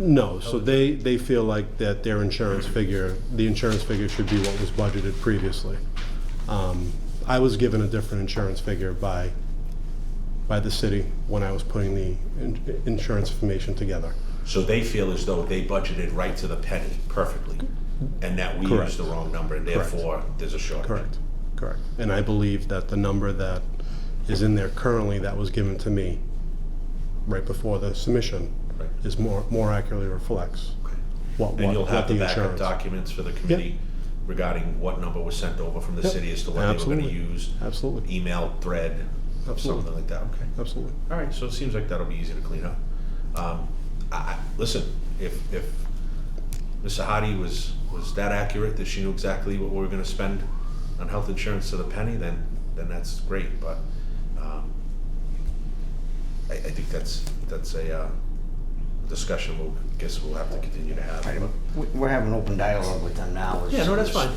No, so they, they feel like that their insurance figure, the insurance figure should be what was budgeted previously. Um, I was given a different insurance figure by, by the city when I was putting the in- insurance information together. So they feel as though they budgeted right to the penny perfectly, and that we Correct. used the wrong number, and therefore, there's a shortage. Correct, correct. And I believe that the number that is in there currently that was given to me right before the submission Right. is more, more accurately reflects Okay. what, what And you'll what have the the backup insurance. documents for the committee regarding what number was sent over from the Yep. city as to what they were gonna Absolutely. use, Absolutely, email, thread, something Absolutely. like that, okay? absolutely. All right, so it seems like that'll be easy to clean up. Um, I, I, listen, if, if Ms. Sahadi was, was that accurate, that she knew exactly what we were gonna spend on health insurance to the penny, then, then that's great, but, um, I, I think that's, that's a, uh, discussion we'll, guess we'll have to continue to have. We- We're having open dialogue with them now. It's- Yeah, no, that's fine.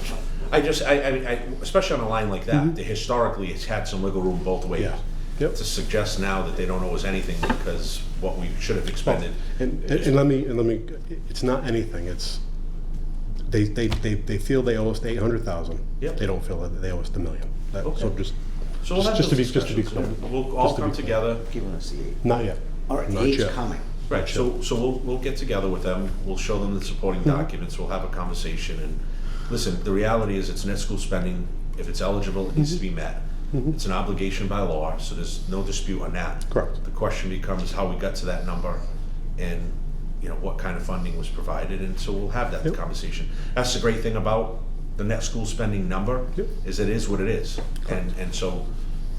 I just, I, I, I- especially on a line like that, that historically, it's had some wiggle room both ways. Yeah. Yep. To suggest now that they don't owe us anything because what we should have expended. And, and and let me, and let me, it's not anything, it's, they, they, they, they feel they owe us the eight hundred thousand. Yep. They don't feel that they owe us the million. That, so Okay. just, So we'll have just to those be- just to be discussions. clear. We'll all Just to be come clear. together, Giving us the eight. not yet. All right, the Not eight's yet. coming. right, so, so we'll, we'll get together with them, we'll show them the supporting Mm-hmm. documents, we'll have a conversation and, listen, the reality is it's net school spending, if it's eligible, it needs to Mm-hmm. be met. It's an obligation by law, so there's no dispute on that. Correct. The question becomes how we got to that number and, you know, what kind of funding was provided, and so we'll have that Yep. conversation. That's the great thing about the net school spending number, Yep. is it is what it is. And, and so,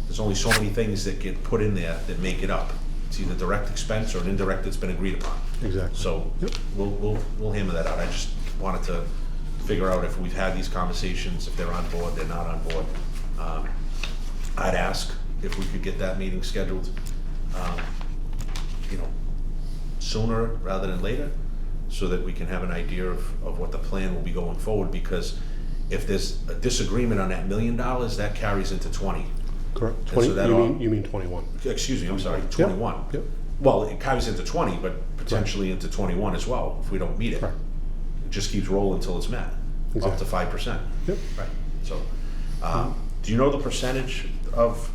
there's only so many things that get put in there that make it up. It's either direct expense or an indirect that's been agreed upon. Exactly. So, Yep. we'll, we'll, we'll hammer that out. I just wanted to figure out if we've had these conversations, if they're on board, they're not on board. Um, I'd ask if we could get that meeting scheduled, um, you know, sooner rather than later, so that we can have an idea of, of what the plan will be going forward, because if there's a disagreement on that million dollars, that carries into twenty. Correct, so twenty, that you all- mean, you mean twenty-one. Excuse me, I'm sorry, twenty-one. yep. Well, it carries into twenty, but potentially into twenty-one as well, if we don't meet it. Correct. It just keeps rolling until it's met, up to Exactly. five percent. Yep. Right, so, um, do you know the percentage of,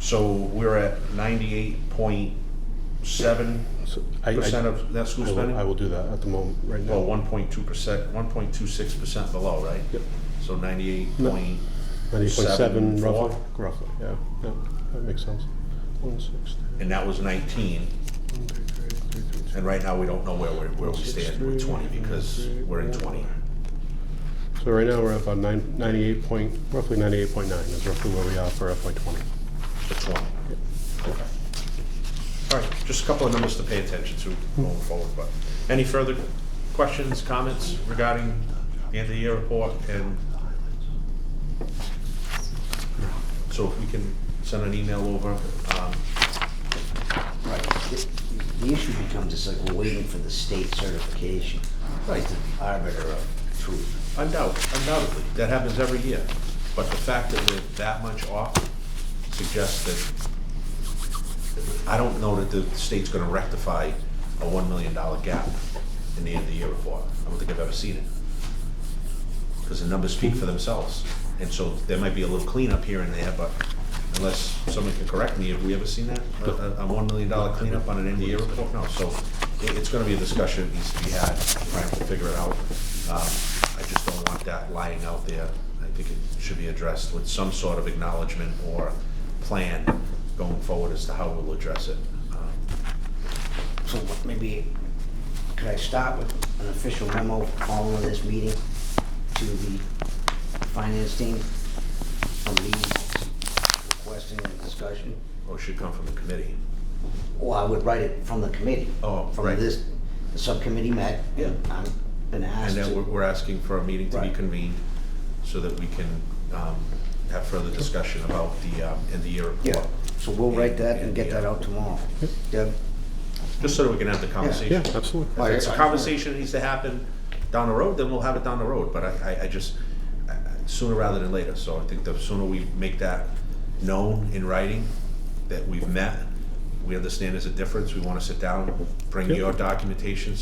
so we're at ninety-eight point seven So I- I- percent of net school I will, I spending? will do that at the moment, right now. Well, one point two percent, one point two six percent below, right? Yep. So ninety-eight point, Ninety-eight point seven, seven four. roughly, roughly, yeah, yeah, that makes sense. One six, and that was nineteen. one, two, three, three, three, And right now, we don't know where we're, where we stand with twenty, because we're in twenty. So right now, we're at about nine, ninety-eight point, roughly ninety-eight point nine is roughly where we are for FY twenty. The twenty. Okay. All right, just a couple of numbers to pay attention to going forward, but any further questions, comments regarding the end of the year report and? So if we can send an email over, um, Right. The- The issue becomes, it's like we're waiting for the state certification. uh, Right. It's the arbiter of truth. undoubtedly, undoubtedly, that happens every year. But the fact that we're that much off suggests that, I don't know that the state's gonna rectify a one million dollar gap in the end of the year report. I don't think I've ever seen it. Because the numbers speak for themselves. And so there might be a little cleanup here and there, but unless someone can correct me, have we ever seen that? A, a- a one million dollar cleanup on an end of year report? No, so it, it's gonna be a discussion that needs to be had, right, to figure it out. Um, I just don't want that lying out there. I think it should be addressed with some sort of acknowledgement or plan going forward as to how we'll address it. Um, So what- maybe, could I start with an official memo following this meeting to the finance team? From me requesting a discussion? Or it should come from the committee. Or I would write it from the committee. Oh, From right. this, the subcommittee met. Yeah. I've been asked And then we're, to. we're asking for a meeting to be Right. convened so that we can um, have further discussion about the, um, end of year Yeah, report. so we'll write that and get that out tomorrow. Deb? Just so that we can have the Yeah, conversation. absolutely. If it's a conversation that needs to happen down the road, then we'll have it down the road, but I, I, I just, I- I- sooner rather than later, so I think the sooner we make that known in writing, that we've met, We understand there's a difference, we wanna sit down, bring Yep. your documentation,